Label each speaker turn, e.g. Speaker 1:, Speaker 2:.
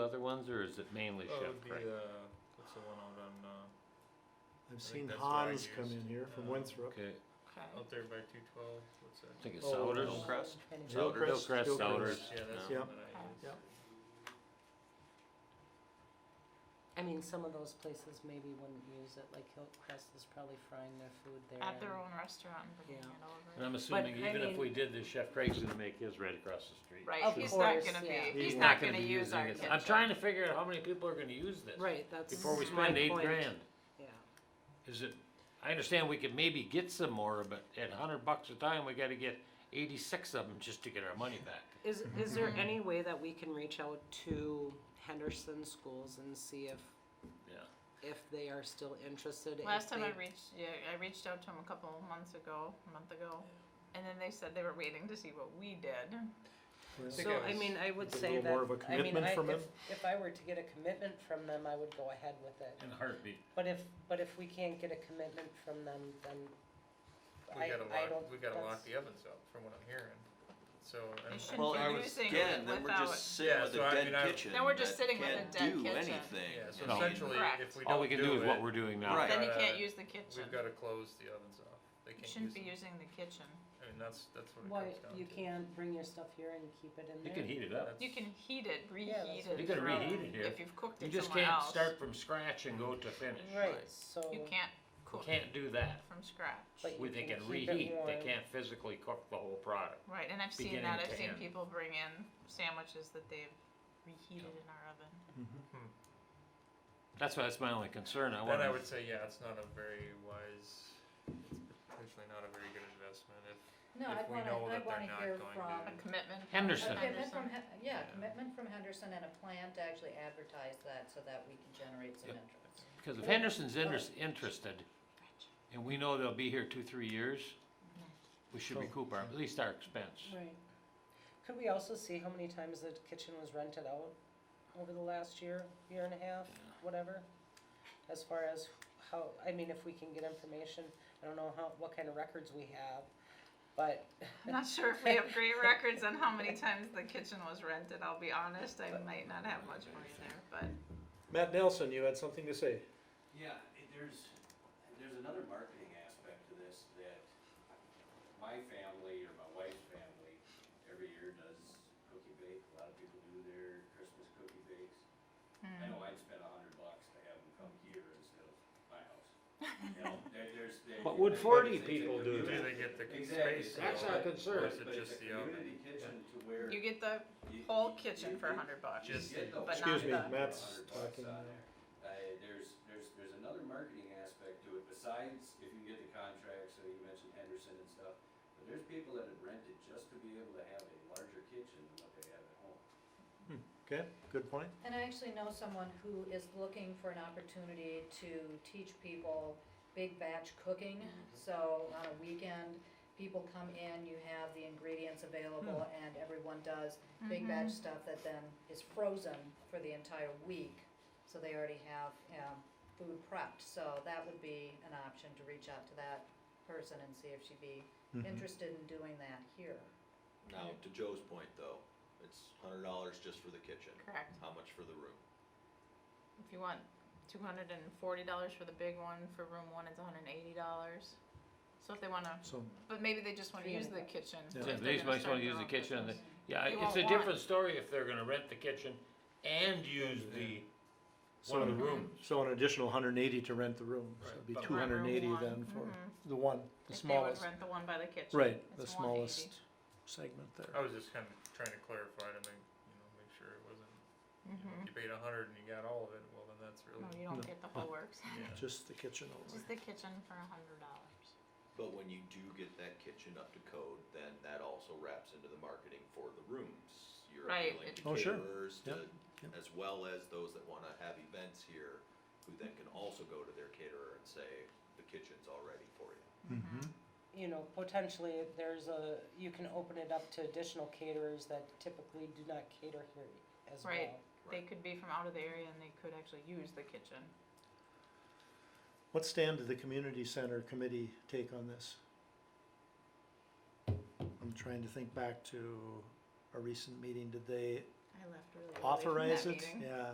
Speaker 1: ones, or is it mainly
Speaker 2: Oh,
Speaker 1: chef
Speaker 2: it'd be,
Speaker 1: Craig?
Speaker 2: uh, what's the one out on, uh, think
Speaker 3: I've seen
Speaker 2: that's what I
Speaker 3: Hans come
Speaker 2: used.
Speaker 3: in here from
Speaker 2: Uh,
Speaker 3: Winthrop.
Speaker 1: Okay,
Speaker 2: out there by two twelve, what's that?
Speaker 1: I think it's
Speaker 3: Oh,
Speaker 1: Souders.
Speaker 3: no.
Speaker 1: Crest?
Speaker 3: Hillcrest,
Speaker 1: Souders, Hillcrest,
Speaker 3: Hillcrest.
Speaker 1: Souders.
Speaker 2: Yeah, that's
Speaker 1: no.
Speaker 2: the
Speaker 3: Yeah.
Speaker 2: one that I use.
Speaker 3: Yeah.
Speaker 4: I mean, some of those places maybe wouldn't use it, like Hillcrest is probably frying their food there.
Speaker 5: At their
Speaker 4: and-
Speaker 5: own restaurant and bringing
Speaker 4: Yeah.
Speaker 5: it over.
Speaker 1: And I'm assuming
Speaker 4: I
Speaker 1: even if
Speaker 4: mean-
Speaker 1: we did this, Chef Craig's gonna make his right across the street.
Speaker 5: Right,
Speaker 4: Of
Speaker 5: he's
Speaker 4: course,
Speaker 5: not gonna
Speaker 4: yeah.
Speaker 5: be. He's,
Speaker 3: He's
Speaker 5: not, gonna, use our
Speaker 1: using
Speaker 5: kitchen.
Speaker 1: it. I'm trying to figure out how many people are gonna use this.
Speaker 4: Right, that's
Speaker 1: Before we
Speaker 4: my
Speaker 1: spend eight
Speaker 4: point.
Speaker 1: grand.
Speaker 4: Yeah,
Speaker 1: Is it, I understand we could maybe get some more, but at hundred bucks a time, we gotta get eighty-six of them just to get our money back.
Speaker 4: is, is there any way that we can reach out to Henderson schools and see if,
Speaker 1: Yeah.
Speaker 4: if they are still interested? if
Speaker 5: Last time I
Speaker 4: they-
Speaker 5: reached, yeah, I reached out to him a couple months ago, a month ago, and then they said they were waiting to see what we did.
Speaker 3: Well,
Speaker 2: think
Speaker 4: So,
Speaker 2: I
Speaker 4: I
Speaker 2: was-
Speaker 4: mean, I would
Speaker 3: was a
Speaker 4: say
Speaker 3: little
Speaker 4: that,
Speaker 3: more of a
Speaker 4: I mean,
Speaker 3: commitment
Speaker 4: I,
Speaker 3: from
Speaker 4: if,
Speaker 3: him.
Speaker 4: if I were to get a commitment from them, I would go ahead with it.
Speaker 1: In a heartbeat.
Speaker 4: But if, but if we can't get a commitment from them, then
Speaker 2: We
Speaker 4: I,
Speaker 2: gotta
Speaker 4: I
Speaker 2: lock,
Speaker 4: don't.
Speaker 2: we gotta lock
Speaker 4: that's-
Speaker 2: the ovens up, from what I'm hearing, so.
Speaker 5: They
Speaker 2: I'm-
Speaker 5: shouldn't
Speaker 6: Well,
Speaker 5: be
Speaker 6: I was,
Speaker 5: using
Speaker 6: again,
Speaker 5: it
Speaker 6: then we're
Speaker 5: without.
Speaker 6: just sitting
Speaker 2: Yeah,
Speaker 6: with
Speaker 2: so I
Speaker 6: a
Speaker 2: mean,
Speaker 6: dead
Speaker 2: I-
Speaker 6: kitchen.
Speaker 5: Then we're just
Speaker 6: that
Speaker 5: sitting with a
Speaker 6: can't
Speaker 5: dead
Speaker 6: do
Speaker 5: kitchen.
Speaker 6: Anything.
Speaker 2: Yeah, so
Speaker 6: I mean,
Speaker 2: essentially,
Speaker 5: Correct.
Speaker 2: if we
Speaker 1: All we
Speaker 2: don't
Speaker 1: can do is
Speaker 2: do
Speaker 1: what
Speaker 2: it,
Speaker 1: we're doing now.
Speaker 6: Right.
Speaker 5: then you
Speaker 2: gotta-
Speaker 5: can't use the kitchen.
Speaker 2: we've gotta close the ovens off, they
Speaker 5: You
Speaker 2: can't
Speaker 5: shouldn't
Speaker 2: use,
Speaker 5: be
Speaker 2: it.
Speaker 5: using the kitchen.
Speaker 2: I mean, that's, that's what it
Speaker 4: Why,
Speaker 2: comes down to.
Speaker 4: you can't bring your stuff here and keep it in
Speaker 1: You
Speaker 4: there?
Speaker 1: can heat it up.
Speaker 5: You can heat it, reheat
Speaker 4: that's
Speaker 5: it.
Speaker 4: what
Speaker 1: You can
Speaker 5: from-
Speaker 1: reheat it here.
Speaker 5: If you've cooked
Speaker 1: You
Speaker 5: it
Speaker 1: just
Speaker 5: somewhere
Speaker 1: can't
Speaker 5: else.
Speaker 1: start from scratch and go to finish.
Speaker 4: Right, so.
Speaker 5: You can't
Speaker 1: We
Speaker 5: cook
Speaker 1: can't do that.
Speaker 5: from scratch.
Speaker 4: but
Speaker 1: We
Speaker 4: you
Speaker 1: they can
Speaker 4: keep it
Speaker 1: reheat, they
Speaker 4: warm.
Speaker 1: can't physically cook the whole product.
Speaker 5: Right, and I've seen
Speaker 1: beginning
Speaker 5: that. I've
Speaker 1: to
Speaker 5: seen
Speaker 1: end.
Speaker 5: people bring in sandwiches that they've reheated in our oven.
Speaker 1: That's why, that's my only concern, I
Speaker 2: Then I
Speaker 1: wanna,
Speaker 2: would say, yeah, it's not a very wise, it's potentially not a very good investment if,
Speaker 7: No,
Speaker 2: if
Speaker 7: I'd
Speaker 2: we
Speaker 7: wanna,
Speaker 2: know that
Speaker 7: I'd wanna
Speaker 2: they're not
Speaker 7: hear
Speaker 2: going
Speaker 7: from,
Speaker 5: A commitment. from
Speaker 1: Henderson.
Speaker 7: a commitment from, Hen- yeah,
Speaker 2: Yeah.
Speaker 7: a commitment from Henderson and a plan to actually advertise that so that we can generate some interest.
Speaker 1: because if Henderson's inter- interested, and we know they'll be here two, three years, we should recoup our, at least our expense.
Speaker 4: Right. Could we also see how many times the kitchen was rented out over the last year, year and a half, whatever? As far as how, I mean, if we can get information, I don't know how, what kind of records we have, but
Speaker 5: I'm not sure if we have great records on how many times the kitchen was rented. I'll be honest, I might not have much for you there, but
Speaker 3: Matt Nelson, you had something to say.
Speaker 8: Yeah, it- there's, there's another marketing aspect to this that my family or my wife's family every year does cookie bake. A lot of people do their Christmas cookie bakes. I know I'd spend a hundred bucks to have them come here instead of my house. You know, there, there's. there-
Speaker 1: But would
Speaker 8: there's
Speaker 1: 40
Speaker 8: things that
Speaker 1: people
Speaker 8: could
Speaker 1: do
Speaker 8: be
Speaker 2: do
Speaker 1: that?
Speaker 8: done.
Speaker 2: they get the
Speaker 8: Exactly.
Speaker 2: space?
Speaker 1: That's
Speaker 2: though?
Speaker 1: our
Speaker 8: But-
Speaker 1: concern.
Speaker 2: Or is it
Speaker 8: But it's
Speaker 2: just
Speaker 8: a
Speaker 2: the oven?
Speaker 8: community kitchen to where.
Speaker 5: you get the
Speaker 8: you-
Speaker 5: whole
Speaker 8: you-
Speaker 5: kitchen
Speaker 8: you-
Speaker 5: for a
Speaker 8: you-
Speaker 5: hundred bucks.
Speaker 8: you
Speaker 2: Just-
Speaker 8: get the
Speaker 5: but
Speaker 3: Excuse
Speaker 8: whole
Speaker 3: me,
Speaker 8: thing for a
Speaker 3: Matt's
Speaker 8: hundred bucks
Speaker 3: talking.
Speaker 8: on there. Uh, there's, there's, there's another marketing aspect to it besides if you get the contract, so you mentioned Henderson and stuff. But there's people that have rented just to be able to have a larger kitchen than what they have at home.
Speaker 3: Okay, good point.
Speaker 7: And I actually know someone who is looking for an opportunity to teach people big batch cooking. So on a weekend, people come in, you have the ingredients available and everyone does big
Speaker 5: Mm-hmm.
Speaker 7: batch stuff that then is frozen for the entire week. So they already have, um, food prepped. So that would be an option to reach out to that person and see if she'd be
Speaker 3: Mm-hmm.
Speaker 7: interested in doing that here.
Speaker 6: Now, to Joe's point though, it's hundred dollars just for the kitchen.
Speaker 5: Correct.
Speaker 6: How much for the room?
Speaker 5: If you want two hundred and forty dollars for the big one, for room one it's hundred and eighty dollars. So if they wanna,
Speaker 3: So,
Speaker 5: but maybe they just wanna use the kitchen.
Speaker 3: Yeah.
Speaker 5: if
Speaker 1: Yeah,
Speaker 5: they're
Speaker 1: they
Speaker 5: gonna
Speaker 1: might
Speaker 5: start
Speaker 1: wanna
Speaker 5: their
Speaker 1: use the
Speaker 5: own
Speaker 1: kitchen, and
Speaker 5: business.
Speaker 1: the- yeah,
Speaker 5: They
Speaker 1: it's
Speaker 5: won't
Speaker 1: a
Speaker 5: want it.
Speaker 1: different story if they're gonna rent the kitchen and use the, one
Speaker 3: so
Speaker 1: of the
Speaker 3: an,
Speaker 1: rooms.
Speaker 3: so an additional hundred and eighty to rent the room, so it'd be
Speaker 2: Right.
Speaker 3: two hundred and eighty
Speaker 5: Room one,
Speaker 3: then for
Speaker 5: mhm.
Speaker 3: the one, the
Speaker 5: If they would
Speaker 3: smallest.
Speaker 5: rent the one by the kitchen.
Speaker 3: Right, the
Speaker 5: it's 180.
Speaker 3: smallest segment
Speaker 2: I
Speaker 3: there.
Speaker 2: was just kinda trying to clarify to make, you know, make sure it wasn't, you know, if you paid a hundred and you got all of it, well, then that's
Speaker 5: Mm-hmm. No,
Speaker 2: really,
Speaker 5: Oh, you
Speaker 3: No.
Speaker 5: don't get the whole works.
Speaker 2: yeah.
Speaker 3: Just the kitchen only.
Speaker 5: Just the kitchen for a hundred dollars.
Speaker 6: But when you do get that kitchen up to code, then that also wraps into the marketing for the rooms. You're
Speaker 5: Right,
Speaker 6: appealing to
Speaker 3: it- Oh, sure.
Speaker 6: caterers,
Speaker 3: Yep,
Speaker 6: to,
Speaker 3: yep.
Speaker 6: as well as those that wanna have events here, who then can also go to their caterer and say, the kitchen's all ready for you.
Speaker 3: Mm-hmm.
Speaker 5: Mm-hmm.
Speaker 2: Mm-hmm.
Speaker 4: you know, potentially there's a, you can open it up to additional caterers that typically do not cater here as well.
Speaker 5: Right. They
Speaker 6: Right.
Speaker 5: could be from out of the area and they could actually use the kitchen.
Speaker 3: What stand did the community center committee take on this? I'm trying to think back to a recent meeting, did they
Speaker 5: I left really early from that
Speaker 3: authorize it?
Speaker 5: meeting.
Speaker 3: Yeah.